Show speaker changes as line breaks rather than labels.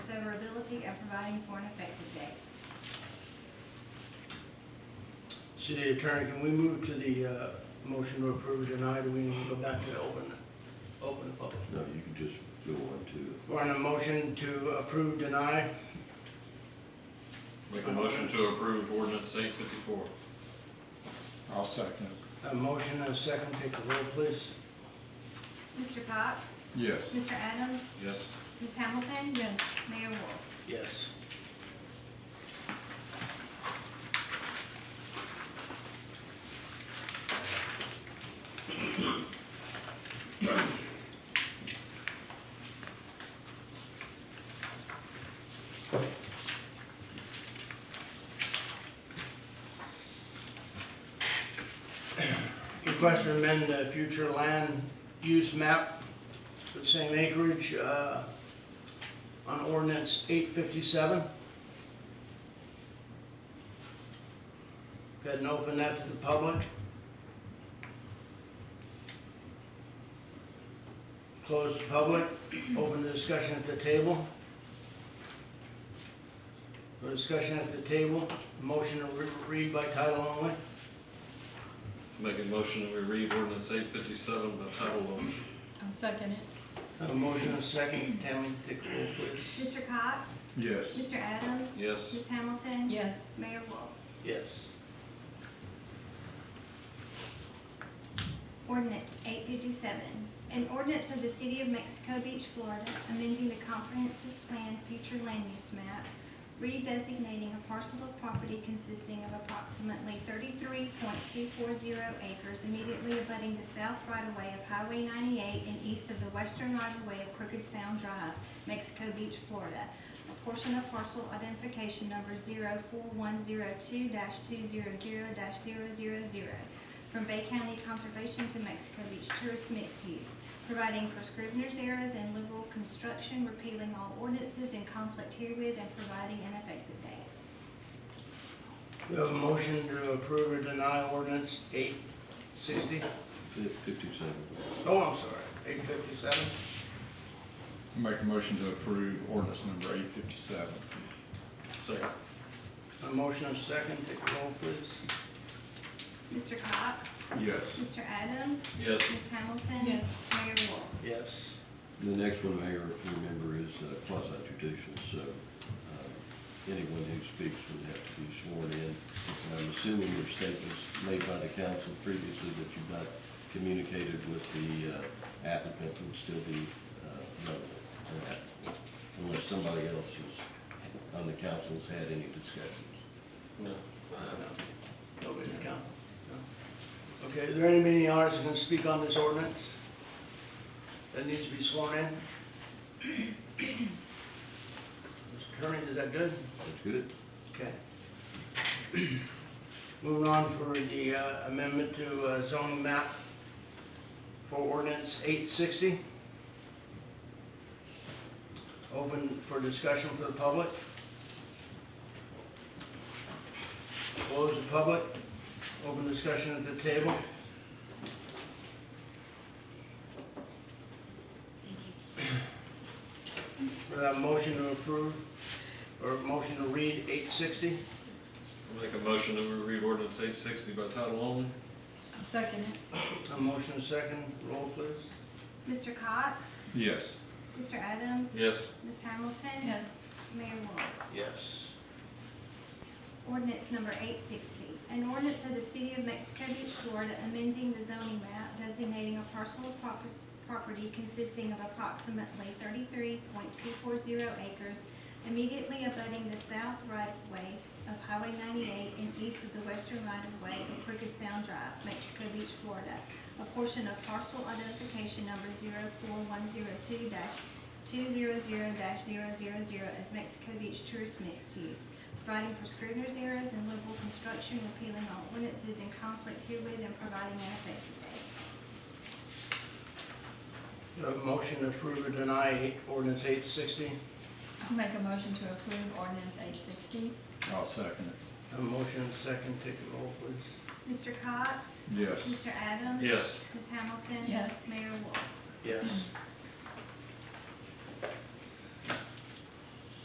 policy of providing for an effective date.
City Attorney, can we move to the uh, motion to approve tonight, or we need to go back to open, open the public?
No, you can just go on to,
We're on a motion to approve, deny,
Make a motion to approve ordinance eight fifty-four.
I'll second it.
a motion and a second, take the roll, please.
Mr. Cox?
Yes.
Mr. Adams?
Yes.
Ms. Hamilton? Yes. Mayor Wolf?
Yes. Request to amend the future land use map for the same acreage, uh, on ordinance eight fifty-seven. Go ahead and open that to the public. Close the public, open the discussion at the table. For discussion at the table, motion to re- read by title only.
Make a motion that we read ordinance eight fifty-seven by title only.
I'll second it.
Have a motion and a second, Tammy, take the roll, please.
Mr. Cox?
Yes.
Mr. Adams?
Yes.
Ms. Hamilton?
Yes,
Mayor Wolf?
Yes.
Ordinance eight fifty-seven, an ordinance of the City of Mexico Beach, Florida, amending the comprehensive plan future land use map, redesignating a parcel of property consisting of approximately thirty-three point two four zero acres immediately abutting the south right-of-way of Highway ninety-eight and east of the western right-of-way of Crooked Sound Drive, Mexico Beach, Florida. A portion of parcel identification number 4102 two zero zero 0 from Bay County Conservation to Mexico Beach Tourist Mixed Use, providing for scrivener's errors and liberal construction, repealing all ordinances in conflict herewith, and providing an effective date.
We have a motion to approve or deny ordinance eight sixty.
fifty-seven.
Oh, I'm sorry, eight fifty-seven.
Make a motion to approve ordinance number eight fifty-seven.
Second.
A motion and a second, take the roll, please.
Mr. Cox?
Yes.
Mr. Adams?
Yes.
Ms. Hamilton?
Yes.
Mayor Wolf?
Yes.
The next one, Mayor, if you remember, is uh, quasi judicial, so uh, anyone who speaks would have to be sworn in. And I'm assuming your statements made by the council previously that you've not communicated with the uh, applicant would still be uh, relevant to that, unless somebody else is, on the council has had any discussions.
No.
Uh, Nobody to count? No. Okay, is there anybody in the audience that can speak on this ordinance that needs to be sworn in? Mr. Attorney, is that good?
That's good?
Okay. Moving on for the uh, amendment to uh, zoning map for ordinance eight sixty. Open for discussion for the public. Close the public, open discussion at the table. We have a motion to approve, or motion to read eight sixty.
Make a motion that we read ordinance eight sixty by title only.
I'll second it.
A motion and a second, roll please.
Mr. Cox?
Yes.
Mr. Adams?
Yes.
Ms. Hamilton?
Yes,
Mayor Wolf?
Yes.
Ordinance number eight sixty, an ordinance of the City of Mexico Beach, Florida, amending the zoning map designating a parcel of propers- property consisting of approximately thirty-three point two four zero acres immediately abutting the south right-of-way of Highway ninety-eight and east of the western right-of-way of Crooked Sound Drive, Mexico Beach, Florida. A portion of parcel identification number 4102 two zero zero 0 as Mexico Beach tourist mixed use providing for scrivener's errors and liberal construction, repealing all ordinances in conflict herewith and providing an effective date.
A motion to approve or deny ordinance eight sixty.
I'll make a motion to approve ordinance eight sixty.
I'll second it.
A motion and a second, take a roll please.
Mr. Cox?
Yes.
Mr. Adams?
Yes.
Ms. Hamilton?
Yes.
Mayor Wolf?
Yes.